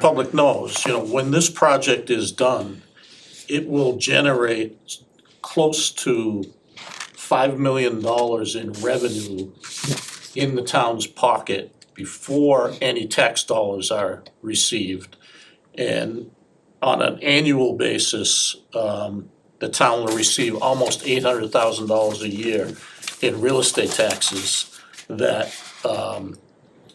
public knows, you know, when this project is done, it will generate close to five million dollars in revenue in the town's pocket before any tax dollars are received. And on an annual basis, um, the town will receive almost eight hundred thousand dollars a year in real estate taxes that, um,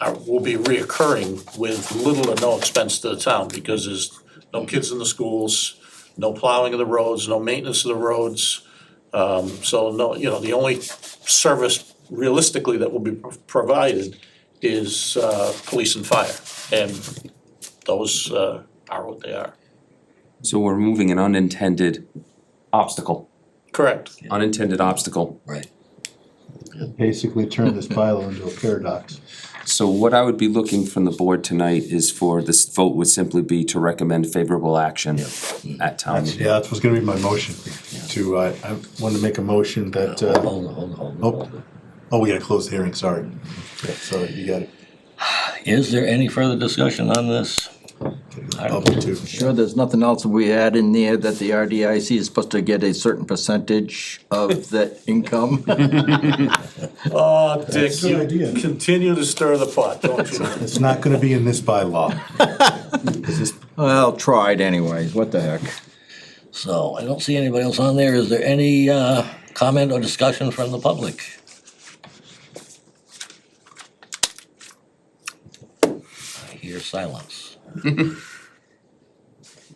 are, will be reoccurring with little or no expense to the town, because there's no kids in the schools, no plowing of the roads, no maintenance of the roads. Um, so no, you know, the only service realistically that will be provided is, uh, police and fire. And those, uh, are what they are. So we're removing an unintended obstacle, Correct. unintended obstacle. Right. basically turn this bylaw into a paradox. So what I would be looking from the board tonight is for this vote would simply be to recommend favorable action at town That's, meeting. yeah, that was gonna be my motion to, uh, I wanted to make a motion that, uh, Hold on, hold on, hold on, Oh. hold on. oh, we gotta close the hearing, sorry. Yeah, Sorry, you got it. Is there any further discussion on this? Bubble too. Sure, there's nothing else we add in there that the RDIC is supposed to get a certain percentage of the income? Oh, Dick, a good you idea. continue to stir the pot, don't you? It's not gonna be in this bylaw. Is this- Well, tried anyways, what the heck. So I don't see anybody else on there. Is there any uh, comment or discussion from the public? I hear silence.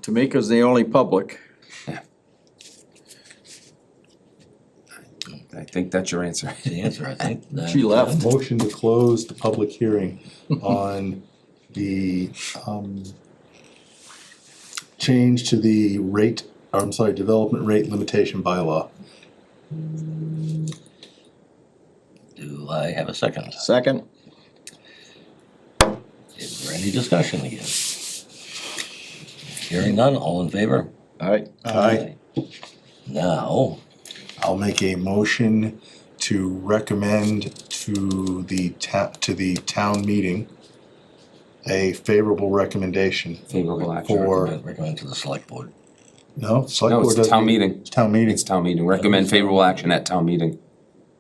Tamika's the only public. I think that's your answer. The answer, I think. uh, She left. Motion to close the public hearing on the, um, change to the rate, or I'm sorry, development rate limitation bylaw. Do I have a second? Second? Is there any discussion again? Hearing none, all in favor? All right, Aye. Now, I'll make a motion to recommend to the ta- to the town meeting a favorable recommendation Favorable action. for, recommend to the select board. no, select No, board it's doesn't. town meeting. It's town meeting, It's town meeting. Recommend favorable action at town meeting.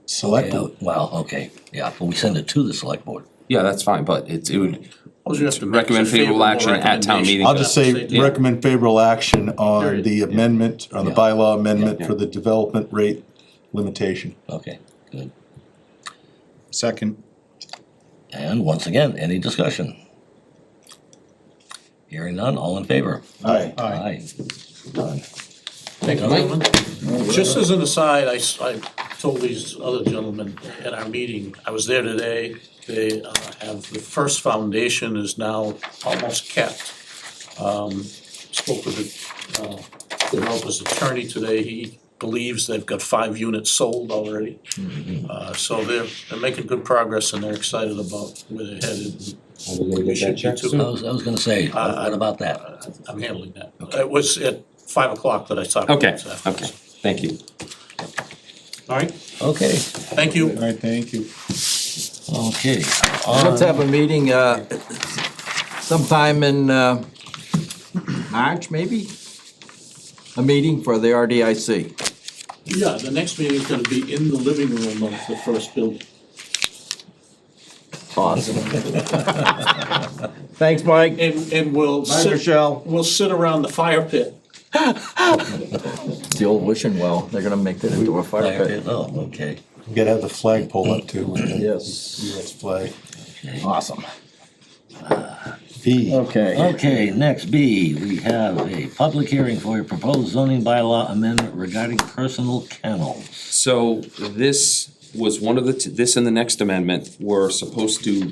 select Yeah, board, Well, okay, yeah, but we send it to the select board. Yeah, that's fine, but it's, it would, Well, you have to make Recommend a favorable action at town meeting. I'll just say, Yeah. recommend favorable action on Period. the amendment, on the Yeah. bylaw amendment Yeah. for the development rate limitation. Okay, good. Second. And once again, any discussion? Hearing none, all in favor? Aye. Aye. Done. Thank you, Mike. gentlemen. Just as an aside, I, s- I told these other gentlemen at our meeting, I was there today. They uh, have, the first foundation is now almost kept. Um, Spoke with the uh, developer's attorney today. He believes they've got five units sold already. Uh, So they're, they're making good progress and they're excited about where they're headed. We should be too. I was, I was gonna say, what about that? I'm handling that. It was at five o'clock that I talked. okay, okay, thank you. All right, Okay, thank you. All right, thank you. okay. let's have a meeting, uh, sometime in, uh, March, maybe? A meeting for the RDIC. Yeah, the next meeting's gonna be in the living room of the first building. Awesome. Thanks, Mike. And, and we'll Bye, sit, Michelle. we'll sit around the fire pit. It's the old wishing well, they're gonna make that into a fire pit. Oh, okay, We gotta have the flag pole up too, with the Yes, US flag. awesome. V. Okay. okay, next B, we have a public hearing for a proposed zoning bylaw amendment regarding personal kennels. So this was one of the, t- this and the next amendment were supposed to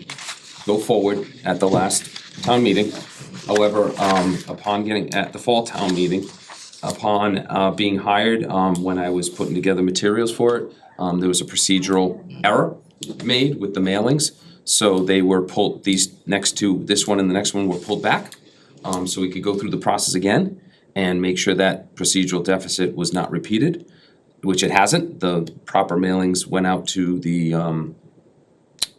go forward at the last town meeting. However, um, upon getting, at the fall town meeting, upon, uh, being hired, um, when I was putting together materials for it, um, there was a procedural error made with the mailings. So they were pulled, these next two, this one and the next one were pulled back, um, so we could go through the process again and make sure that procedural deficit was not repeated which it hasn't, the proper mailings went out to the um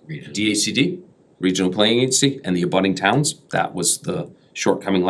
DACD, Regional Planning Agency, and the abutting towns, that was the shortcoming